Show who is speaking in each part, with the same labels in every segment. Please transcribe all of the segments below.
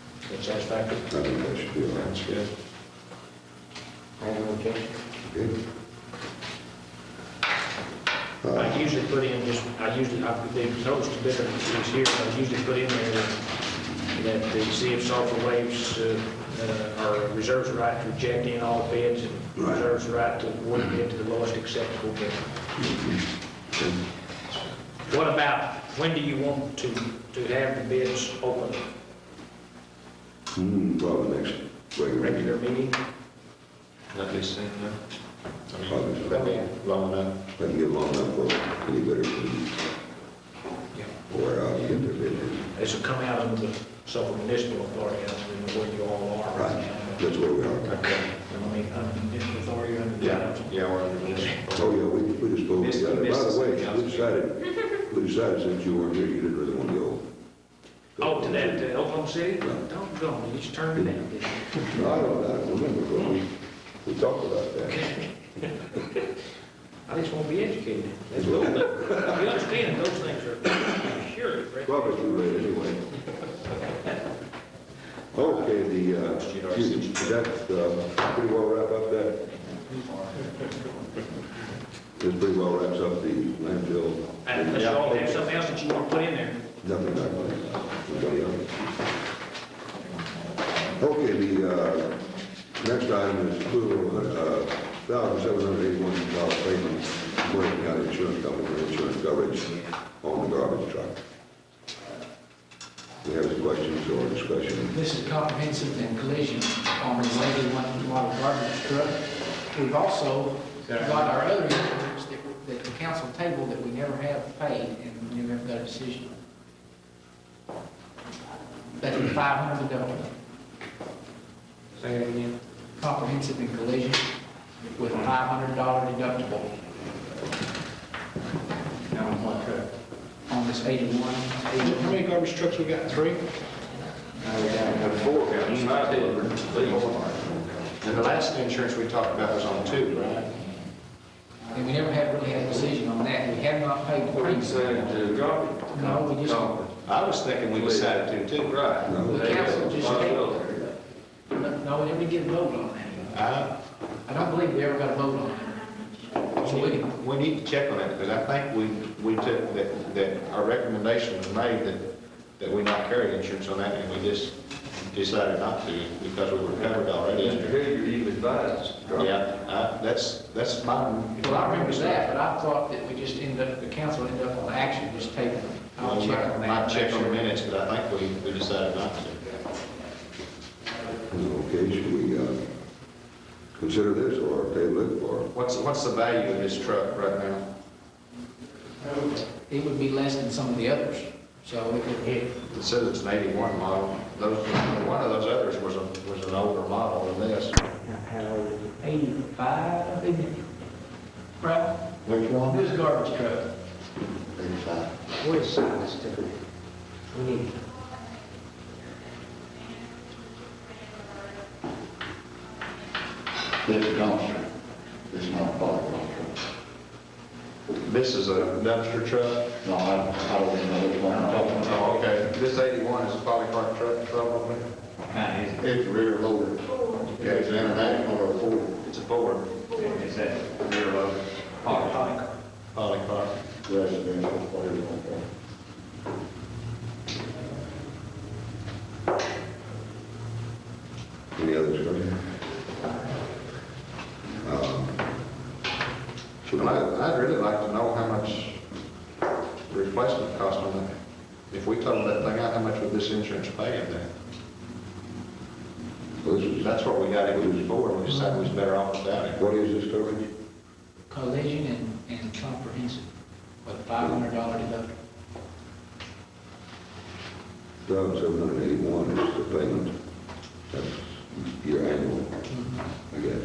Speaker 1: satisfactory?
Speaker 2: I think that should be all right.
Speaker 1: That's good. I have no objection.
Speaker 2: Good.
Speaker 1: I
Speaker 2: Uh,
Speaker 1: usually put in just, I usually, I, the notes to different things here, but I usually put in there that- that the City of Sulphur waives, uh, uh, or reserves the right to reject in all bids and
Speaker 2: Right.
Speaker 1: reserves the right to award a bid to the lowest acceptable bid. What about, when do you want to, to have the bids open?
Speaker 2: hmm, Probably next regular meeting.
Speaker 1: Regular meeting?
Speaker 3: At least, in there. I mean, uh,
Speaker 2: Probably so.
Speaker 1: Okay.
Speaker 3: long enough.
Speaker 2: I can get long enough for anybody to,
Speaker 1: Yeah.
Speaker 2: or I'll get their bid in.
Speaker 1: This will come out of the Sulphur Municipal Authority, I don't know where you all are right
Speaker 2: Right,
Speaker 1: now.
Speaker 2: that's where we are.
Speaker 3: Okay.
Speaker 1: but, I mean, under the municipal authority, under the
Speaker 3: Yeah,
Speaker 1: council.
Speaker 3: yeah, we're under this.
Speaker 2: Oh, yeah, we, we just go,
Speaker 3: Missed-
Speaker 2: by
Speaker 3: missed
Speaker 2: the way,
Speaker 3: something
Speaker 2: we decided, we decided since you weren't here, you didn't really want to go.
Speaker 1: Oh, to that, to Oklahoma City?
Speaker 2: Yeah.
Speaker 1: Don't go, you just turned it down. didn't you?
Speaker 2: No, I don't, I don't remember, but we, we talked about that.
Speaker 1: I just want to be educated. That's cool. You understand, those things are surely, right?
Speaker 2: Probably too late anyway. Okay, the, uh, is that, uh, pretty well wrap up that? This pretty well wraps up the landfill.
Speaker 1: And Unless you all have something else that you want to put in there.
Speaker 2: Nothing back on it. Nobody else? Okay, the uh, next item is approval of uh, thousand seven hundred eighty-one dollar payment to Morgan County Insurance Company for insurance coverage on the garbage truck. We have any questions or discussion?
Speaker 4: This is comprehensive and collision on related one model garbage truck. We've also got our other insurance that- that the council table that we never have paid and we never have got a decision. That's five hundred dollars.
Speaker 1: Say it again.
Speaker 4: Comprehensive and collision with a five hundred dollar deductible. Now, on what truck? On this eighty-one.
Speaker 5: How many garbage trucks we got? Three?
Speaker 4: No, we haven't.
Speaker 3: Four, counts, not dead, please. And the last insurance we talked about was on two, right?
Speaker 4: And we never have really had a decision on that. We have not paid the premium. No, we just-
Speaker 3: I was thinking we decided to, too, right?
Speaker 2: No.
Speaker 4: The council just
Speaker 3: Well,
Speaker 4: No, we never did get a vote on that.
Speaker 3: I-
Speaker 4: I don't believe we ever got a vote on that. So we,
Speaker 3: We need to check on that, because I think we, we took, that, that our recommendation was made that, that we not carry insurance on that, and we just decided not to, because we were covered already
Speaker 6: Mr.
Speaker 3: under.
Speaker 6: Hilliard, you advised.
Speaker 3: Yeah, I, that's, that's my.
Speaker 4: well, I remember that, but I thought that we just ended up, the council ended up on action, just taking. it. I'll
Speaker 3: Well,
Speaker 4: check on that.
Speaker 3: Might check on the minutes, but I think we, we decided not to.
Speaker 2: Okay, should we uh, consider this or table it or?
Speaker 3: What's, what's the value of this truck right now?
Speaker 4: It would be less than some of the others, so it could hit.
Speaker 3: It says it's an eighty-one model, those, one of those others was a, was an older model than this.
Speaker 4: How, eighty-five, isn't it? Right? Which one? This garbage truck.
Speaker 1: What is size difference? We need
Speaker 7: This is dumpster, this is not a bottle dumpster.
Speaker 3: This is a dumpster truck?
Speaker 7: No, I don't, I don't even know which one I'm talking about.
Speaker 3: Oh, okay. This 81 is a polycart truck, probably?
Speaker 6: Kind of,
Speaker 7: It's rear loader.
Speaker 3: Yeah, it's an international
Speaker 7: or Ford.
Speaker 3: It's a Ford.
Speaker 6: is that rear loader?
Speaker 3: Polycart.
Speaker 7: Residential, whatever you want to call it.
Speaker 2: Any other discussion? Um, Should
Speaker 3: And
Speaker 2: I,
Speaker 3: I- I'd really like to know how much replacement cost on that. If we totaled that thing out, how much would this insurance pay in there?
Speaker 2: well, this is,
Speaker 3: That's what we got into this for, we decided we was better off without it.
Speaker 2: what is this coverage?
Speaker 4: Collision and, and comprehensive with a five hundred dollar deductible.
Speaker 2: Thousand seven hundred eighty-one is the payment. That's your annual, I guess.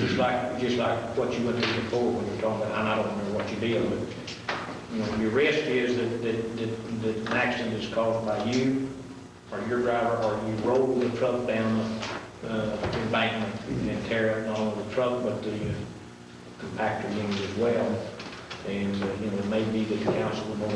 Speaker 1: Just like, just like what you went through before when you were talking about, and I don't remember what you did, but, you know, your risk is that, that, that- that an accident is caused by you or your driver, or you roll the truck down the uh, embankment and tear up not only the truck, but the uh, compactor unit as well. And, uh, you know, it may be that the council would want